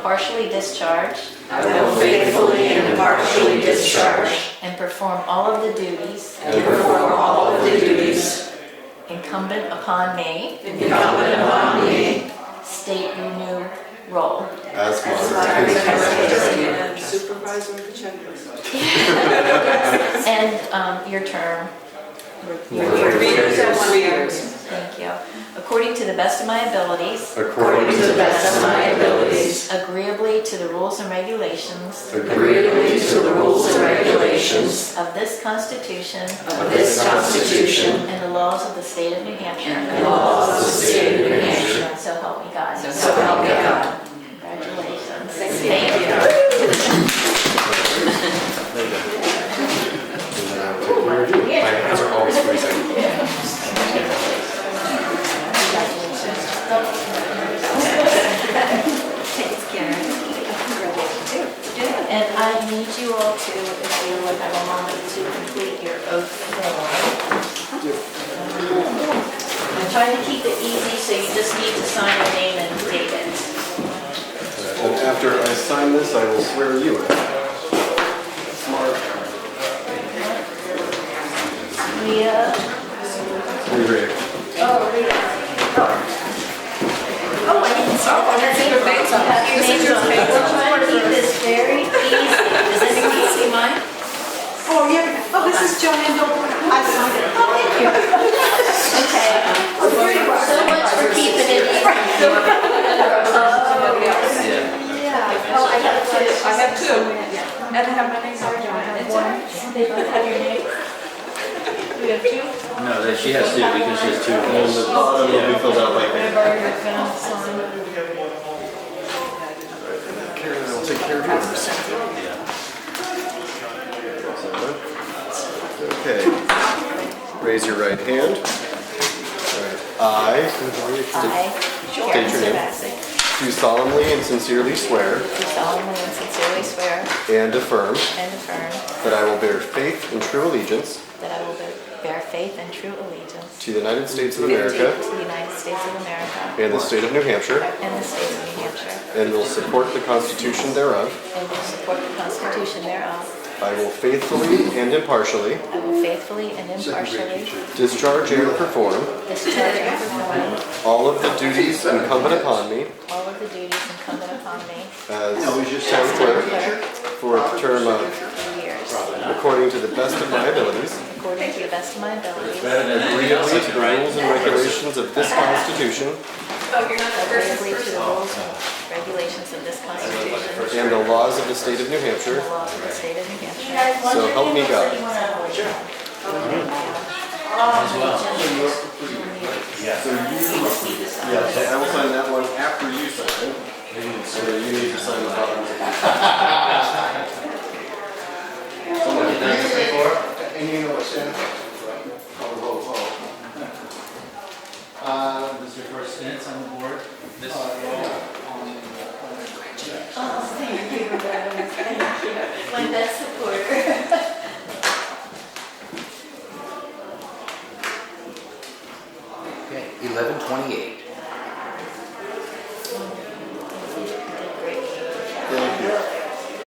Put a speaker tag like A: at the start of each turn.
A: impartially discharge
B: I will faithfully and impartially discharge
A: and perform all of the duties
B: and perform all of the duties
A: incumbent upon me,
B: incumbent upon me
A: state your new role.
C: As
B: as my
C: my
B: and supervisor of the checklist.
A: And um, your term. Your- your-
B: For readers and readers,
A: Thank you. According to the best of my abilities,
C: according to the best of my abilities,
A: agreeably to the rules and regulations
C: agreeably to the rules and regulations
A: of this Constitution
C: of this Constitution
A: and the laws of the state of New Hampshire.
C: and laws of the state of New Hampshire.
A: So help me God.
C: So help me God.
A: Congratulations.
B: Thank
A: you.
C: My hands are always freezing.
A: Thanks, Karen. And I need you all to, if you would have a moment to complete your oath form. I'm trying to keep it easy, so you just need to sign your name and date it.
C: And after I sign this, I will swear you in.
A: Leah?
C: We ready?
A: Oh, Leah. Oh, I didn't see. Oh, that's your face on. Have your names on. it. We're trying to keep this very easy. Does anyone see mine?
D: Oh, yeah, oh, this is Joanne Noble. I signed it.
A: Oh, thank you. Okay. So much for keeping it easy.
D: Yeah. Oh, I have two.
B: I have two.
D: And I have my name, sorry, Joanne. It's all right.
A: They both have your names? We have two?
E: No, that she has to because she has two kids.
C: It'll be filled out like that.
A: Whatever you're gonna sign.
C: Karen, I'll take care of yours. Okay. Raise your right hand. All right. I
A: I,
C: State
A: Karen
C: your name.
A: Savasik,
C: do solemnly and sincerely swear
A: do solemnly and sincerely swear
C: and affirm
A: and affirm
C: that I will bear faith and true allegiance
A: that I will bear- bear faith and true allegiance
C: to the United States of
A: to
C: America
A: the United States of America
C: and the state of New Hampshire,
A: and the state of New Hampshire,
C: and will support the Constitution thereof.
A: and will support the Constitution thereof.
C: I will faithfully and impartially
A: I will faithfully and impartially
C: discharge and perform
A: discharge and perform
C: all of the duties incumbent upon me
A: all of the duties incumbent upon me
C: as
A: as
C: town
A: town
C: clerk
A: clerk
C: for a term of,
A: for years,
C: according to the best of my abilities,
A: according to the best of my abilities.
C: agreeably to the rules and regulations of this Constitution
D: Oh,
A: Agreeably to the rules and regulations of this Constitution
C: and the laws of the state of New
A: and
C: Hampshire,
A: the laws of the state of New Hampshire.
C: so help me God. Yeah, so I will sign that one after you sign it. So you need to sign the bottom. Someone did this before?
F: And you know what, Shannon? Call the roll call. Uh,
E: This is your first stint on the board? This
F: uh,
A: Oh, thank you, Reverend. Thank you. My best supporter.
G: Okay, eleven twenty-eight.